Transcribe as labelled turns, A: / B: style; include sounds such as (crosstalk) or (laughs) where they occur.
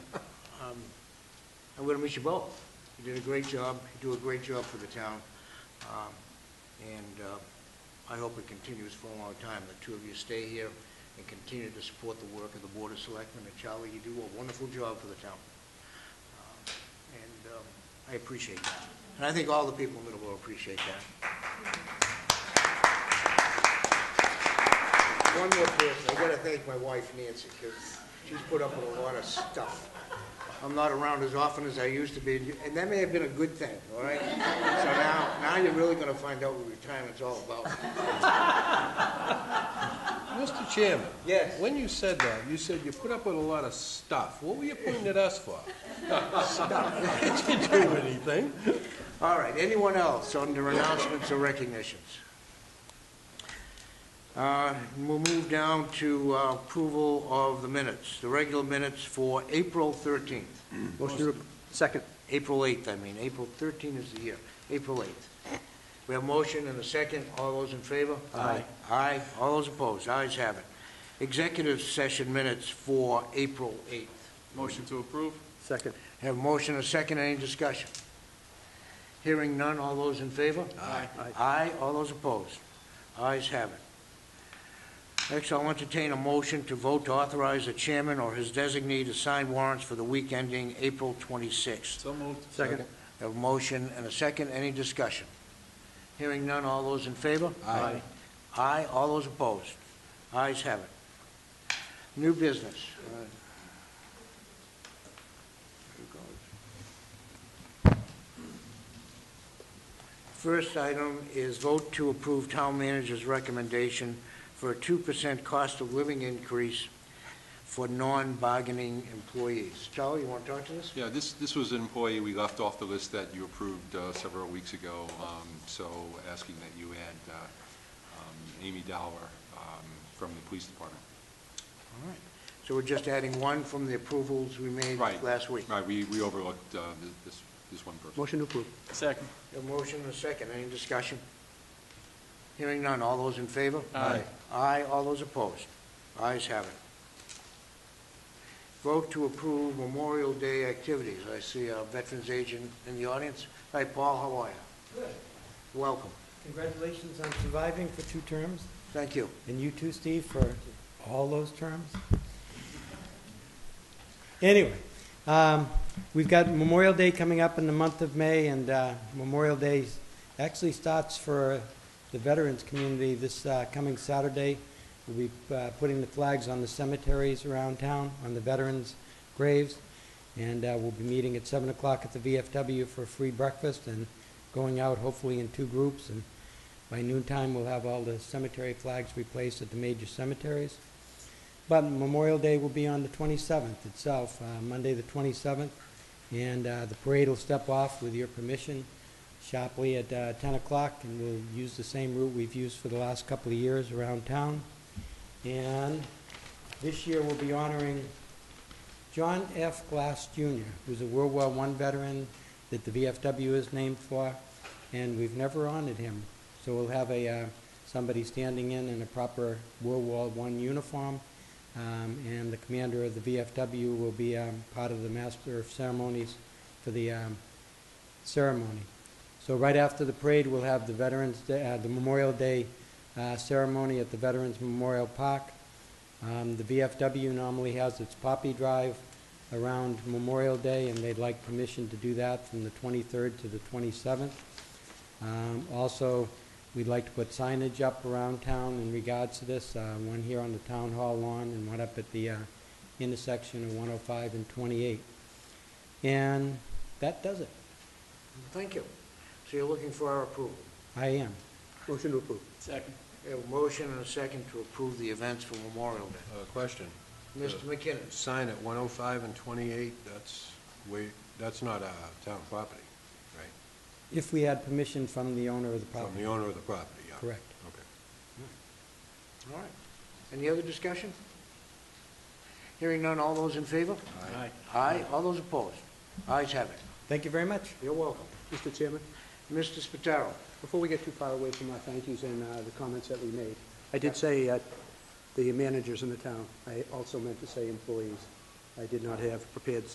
A: um, I want to wish you both. You did a great job, you do a great job for the town, Um, and uh, I hope it continues for a long time. The two of you stay here and continue to support the work of the Board of Selectmen, and Charlie, you do a wonderful job for the town. Um, And um, I appreciate that, and I think all the people in Middleborough appreciate that. One more person, I gotta thank my wife Nancy, because she's put up with a lot of stuff. I'm not around as often as I used to be, and that may have been a good thing, all right? So now, now you're really gonna find out what retirement's all about.
B: Mr. Chairman?
A: Yes.
B: When you said that, you said you put up with a lot of stuff. What were you pointing at us for? (laughs) Stuff. Did you do anything?
A: All right, anyone else under announcements or recognitions? Uh, We'll move down to uh, approval of the minutes, the regular minutes for April 13th,
C: Motion to, second.
A: April 8th, I mean, April 13th is the year, April 8th. We have motion and a second, all those in favor?
C: Aye.
A: Aye, all those opposed, ayes have it. Executive session minutes for April 8th.
D: Motion to approve?
C: Second.
A: Have motion and second, any discussion? Hearing none, all those in favor?
D: Aye.
A: Aye, all those opposed? Ayes have it. Next, I'll entertain a motion to vote to authorize the chairman or his designee to sign warrants for the week ending April 26th.
D: So moved.
C: Second.
A: Have motion and a second, any discussion? Hearing none, all those in favor?
B: Aye.
A: Aye, all those opposed? Ayes have it. New business. Uh, there it goes. First item is vote to approve town manager's recommendation for a 2% cost of living increase for non-bargaining employees. Charlie, you want to talk to this?
D: Yeah, this, this was an employee we left off the list that you approved uh, several weeks ago, um, so asking that you add uh, um, Amy Dower um, from the police department.
A: All right. So we're just adding one from the approvals we made
D: Right.
A: last week.
D: Right, we, we overlooked uh, thi- this, this one person.
C: Motion to approve.
D: Second.
A: A motion and a second, any discussion? Hearing none, all those in favor?
D: Aye.
A: Aye, all those opposed? Ayes have it. Vote to approve Memorial Day activities. I see a veterans agent in the audience. Hi, Paul, how are you? Welcome,
E: Congratulations on surviving for two terms,
A: thank you.
E: and you too, Steve, for all those terms. Anyway, um, we've got Memorial Day coming up in the month of May, and uh, Memorial Day actually starts for the veterans community this uh, coming Saturday. We'll be uh, putting the flags on the cemeteries around town, on the veterans' graves, and uh, we'll be meeting at 7 o'clock at the VFW for a free breakfast, and going out hopefully in two groups, and by noontime, we'll have all the cemetery flags replaced at the major cemeteries. But Memorial Day will be on the 27th itself, uh, Monday, the 27th, and uh, the parade will step off with your permission sharply at uh, 10 o'clock, and we'll use the same route we've used for the last couple of years around town. And this year, we'll be honoring John F. Glass Jr., who's a World War I veteran that the VFW is named for, and we've never honored him. So we'll have a, uh, somebody standing in in a proper World War I uniform, um, and the commander of the VFW will be um, part of the master of ceremonies for the um, ceremony. So right after the parade, we'll have the Veterans, Day- uh, the Memorial Day uh, ceremony at the Veterans Memorial Park. Um, The VFW normally has its poppy drive around Memorial Day, and they'd like permission to do that from the 23rd to the 27th. Um, Also, we'd like to put signage up around town in regards to this, uh, one here on the Town Hall lawn and one up at the uh, intersection of 105 and 28. And that does it.
A: Thank you. So you're looking for our approval.
E: I am.
C: Motion to approve.
A: We have a motion and a second to approve the events for Memorial Day.
B: Uh, Question.
A: Mr. McKinnon?
B: Sign at 105 and 28, that's, way. that's not uh, town property, right?
E: If we had permission from the owner of the
B: From the
E: property.
B: owner of the property, yeah.
E: Correct.
B: Okay.
A: All right. Any other discussion? Hearing none, all those in favor?
B: Aye.
A: Aye, all those opposed? Ayes have it.
E: Thank you very much.
A: You're welcome.
C: Mr. Chairman,
A: Mr. Spataro,
C: before we get too far away from our thank yous and uh, the comments that we made, I did say uh, the managers in the town. I also meant to say employees. I did not have prepared